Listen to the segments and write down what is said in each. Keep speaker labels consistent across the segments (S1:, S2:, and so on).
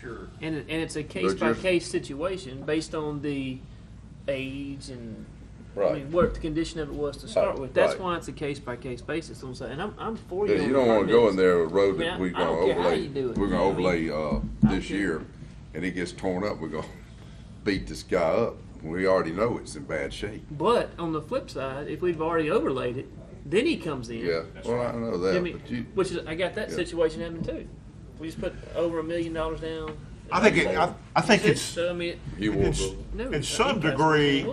S1: Sure.
S2: And, it- and it's a case by case situation based on the age and, I
S3: Right.
S2: mean, what the condition of it was to start with. That's
S3: right.
S2: why it's a case by case basis, I'm saying, and I'm, I'm for you.
S3: Yeah,
S2: on
S3: you don't wanna go
S2: permits.
S3: in there with roads
S2: I
S3: that
S2: mean,
S3: we're
S2: I- I
S3: gonna
S2: don't care how you
S3: overlay,
S2: do it.
S3: we're gonna
S2: I mean,
S3: overlay, uh, this
S2: care.
S3: year, and it gets torn up, we're gonna beat this guy up. We already know it's in bad shape.
S2: But on the flip side, if we've already overlaid it, then he comes in.
S3: Yeah, well, I know
S2: I
S3: that,
S2: mean,
S3: but you,
S2: which is, I got that
S3: yeah.
S2: situation happening too. We just put over a million dollars down.
S4: I think, it- I, I think it's,
S2: So, I mean,
S3: you will,
S4: it's,
S3: go.
S2: no.
S4: in some
S2: that's-
S4: degree,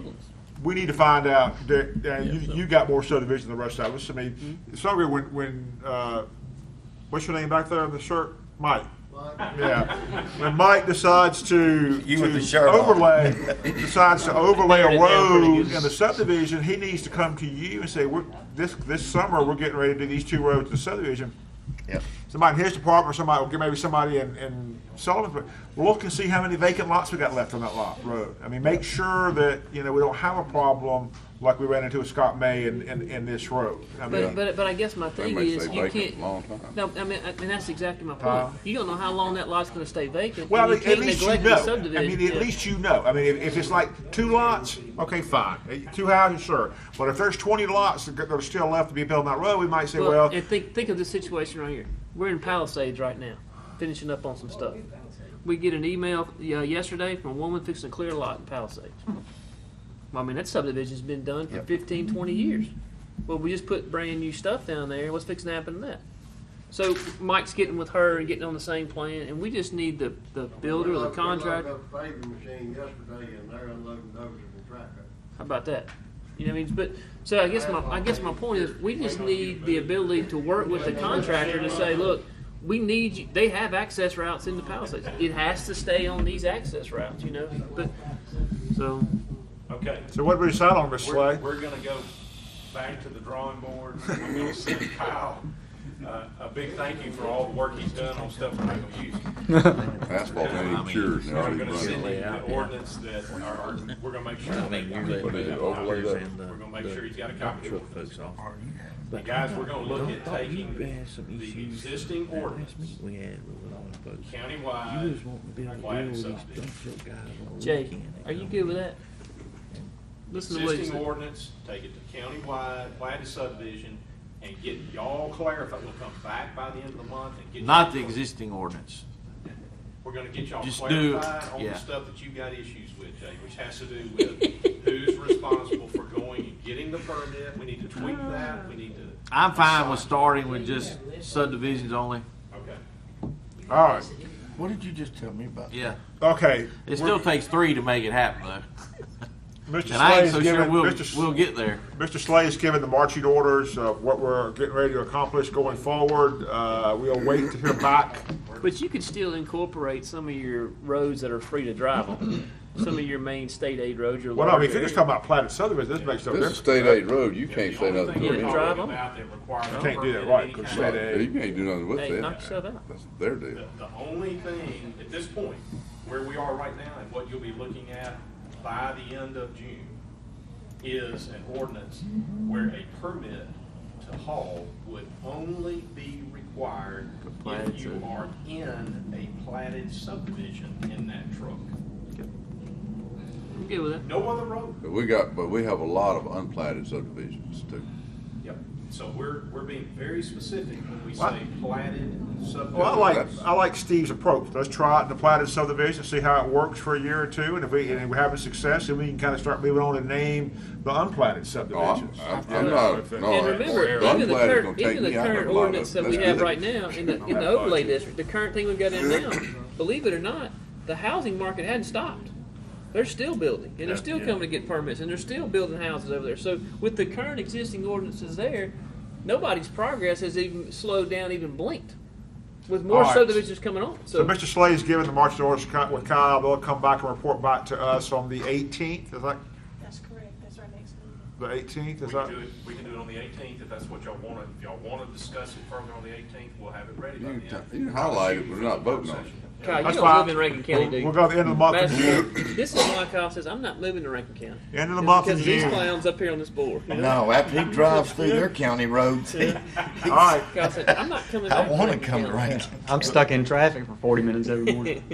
S4: we need to find out that, uh, you,
S2: so-
S4: you got more subdivision than the rest of us. I mean, it's not weird when, when, uh, what's your name back there in the shirt? Mike. Yeah. When Mike decides to,
S5: You with the
S4: to
S5: shirt on.
S4: overlay, decides to overlay
S2: Narrowed
S4: a
S2: it down pretty
S4: road
S2: good.
S4: in the subdivision, he needs to come to you and say, we're, this, this summer, we're getting ready to do these two roads in the subdivision.
S5: Yep.
S4: Somebody in his department, or somebody, or maybe somebody in, in Sullivan's, but look and see how many vacant lots we got left on that lot, road. I mean, make sure that, you know, we don't have a problem like we ran into with Scott May in, in, in this road. I
S2: But,
S4: mean,
S2: but, but I guess my
S3: they
S2: thing
S3: may
S2: is,
S3: stay
S2: you
S3: vacant
S2: can't,
S3: a long time.
S2: No, I mean, I mean that's exactly my point.
S4: Tom?
S2: you don't know how long that lot's going to stay vacant.
S4: Well,
S2: and
S4: at
S2: you can't
S4: least you
S2: neglect
S4: know.
S2: The subdivision.
S4: I mean, at
S2: Yeah.
S4: least you know. I mean, if, if it's like two lots, okay, fine. Uh, Two houses, sure. But if there's 20 lots that are still left to be built on that road, we might say,
S2: Well,
S4: well,
S2: and think think of this situation right here. We're in Palisades right now, finishing up on some stuff. We get an email uh, yesterday from a woman fixing a clear lot in Palisades. Well, I mean, that subdivision's been done for
S5: Yep.
S2: fifteen, twenty 15, 20 years. Well, we just put brand new stuff down there. What's fixing to happen to that? So Mike's getting with her and getting on the same plan, and we just need the, the builder, the contractor.
S6: We loaded up a paving machine yesterday and they're unloading those in the track.
S2: How about that? You know what I mean? But so I guess my I guess my point is we just need the ability to work with the contractor to say, look, we need you. They have access routes in the Palisades. It has to stay on these access routes, you know. But so
S1: Okay.
S4: so what do we decide on, Mr.
S1: We're,
S4: Slay?
S1: we're gonna go back to the drawing board. We're gonna send Kyle uh, a big thank you for all the work he's done on stuff we're not gonna use.
S3: asphalt ain't even cured, and they
S1: We're
S3: already
S1: gonna send
S3: running.
S1: you the ordinance that are, we're gonna make sure.
S5: I mean, you're
S3: But it overlay that.
S1: We're gonna make sure he's got a copy.
S5: Truck uh, folks off.
S1: And guys, we're gonna look at taking
S5: You had some
S1: the
S5: issues.
S1: existing ordinance Uh,
S5: Last meeting we had with all the folks. You
S1: countywide.
S5: was wanting to be able to
S1: Quiet
S5: deal with these
S1: subdivision.
S5: dump truck guys on the
S2: Jay,
S5: weekend.
S2: are you good with that? Listen to what he
S1: existing
S2: said.
S1: ordinance, take it to countywide, platted subdivision, and get y'all clarified, we'll come back by the end of the month and get.
S7: Not the
S1: y'all-
S7: existing ordinance.
S1: We're gonna get y'all
S7: just do-
S1: clarified on the
S7: yeah.
S1: stuff that you got issues with, Jay, which has to do with who's responsible for going and getting the permit, we need to tweak that, we need to,
S7: I'm fine with starting with just subdivisions only.
S1: okay.
S4: All right.
S5: What did you just tell me about?
S7: Yeah.
S4: Okay.
S7: It still takes three to make it happen though.
S4: Mr.
S7: And I
S4: Slay
S7: ain't
S4: is
S7: so sure
S4: giving,
S7: we'll,
S4: Mr.
S7: we'll get there.
S4: Mr. Slay has given the marching orders of what we're getting ready to accomplish going forward. Uh, we'll wait to hear back.
S2: But you could still incorporate some of your roads that are free to drive on. Some of your main state aid roads, your
S4: Well, no, I mean, if
S2: larger
S4: you're
S2: areas.
S4: just talking about platted subdivision, this makes no
S3: This is
S4: difference.
S3: state aid road, you
S1: Yeah,
S3: can't
S1: the
S3: say
S1: only
S3: nothing
S1: thing
S3: to
S2: Yeah,
S1: we're
S3: them.
S2: drive
S1: talking
S2: on.
S1: about that requires
S4: You
S1: no
S4: can't do
S1: permit
S4: that,
S1: of
S4: right,
S1: any
S4: 'cause
S1: kind.
S4: state aid-
S3: Yeah, You can't do nothing with
S2: Hey, knock
S3: that.
S2: yourself out.
S3: That's their deal.
S1: The, the only thing, at this point, where we are right now and what you'll be looking at by the end of June is an ordinance where a permit to haul would only be required
S7: platted
S1: if you
S7: sub-
S1: are in a platted subdivision in that truck.
S2: I'm good with that.
S1: No other road.
S3: But we got, but we have a lot of unplatted subdivisions too.
S1: Yep. So we're, we're being very specific when we
S4: What?
S1: say platted subdivision.
S4: Well, I like, I like Steve's approach. Let's try it in the platted subdivision, see how it works for a year or two, and if we, and if we're having success, then we can kind of start moving on and name the unplatted
S3: No, I'm,
S4: subdivisions.
S3: I'm- I'm not, no.
S2: And remember,
S3: the
S2: even the
S3: unplatted is gonna
S2: current,
S3: take
S2: even the
S3: me out of a
S2: current
S3: lot of-
S2: ordinance that we
S3: that's
S2: have
S3: good.
S2: right now in the, in the overlay district, the current thing we've got in now, believe it or not, the housing market hadn't stopped. They're still building, and they're still coming to get permits, and they're still building houses over there. So with the current existing ordinances there, nobody's progress has even slowed down, even blinked, with more
S4: All right.
S2: subdivisions coming on,
S4: So
S2: so.
S4: Mr. Slade's given the marching orders to Ky- with Kyle, they'll come back and report back to us on the eighteenth, is that,
S8: That's correct, that's our next meeting.
S4: the eighteenth,
S1: We
S4: is
S1: can
S4: that?
S1: do it, we can do it on the eighteenth, if that's what y'all wanna, if y'all wanna discuss it further on the eighteenth, we'll have it ready by
S3: You
S1: then.
S3: can t- you can highlight it, but we're not voting on it.
S2: Kyle, you
S4: That's
S2: don't live
S4: fine.
S2: in Rankin County, do you?
S4: We'll go to the end of the month.
S2: That's- This is why Kyle says, I'm not moving to Rankin County.
S4: End of the
S2: It's
S4: month in
S2: Because of these
S4: June.
S2: clowns up here on this board.
S5: No, after he drives through your county roads, he-
S4: All right.
S2: Kyle said, I'm not coming back.
S5: I want to
S2: Rankin
S5: come
S2: County."
S5: around.
S9: I'm stuck in traffic for 40 minutes every morning.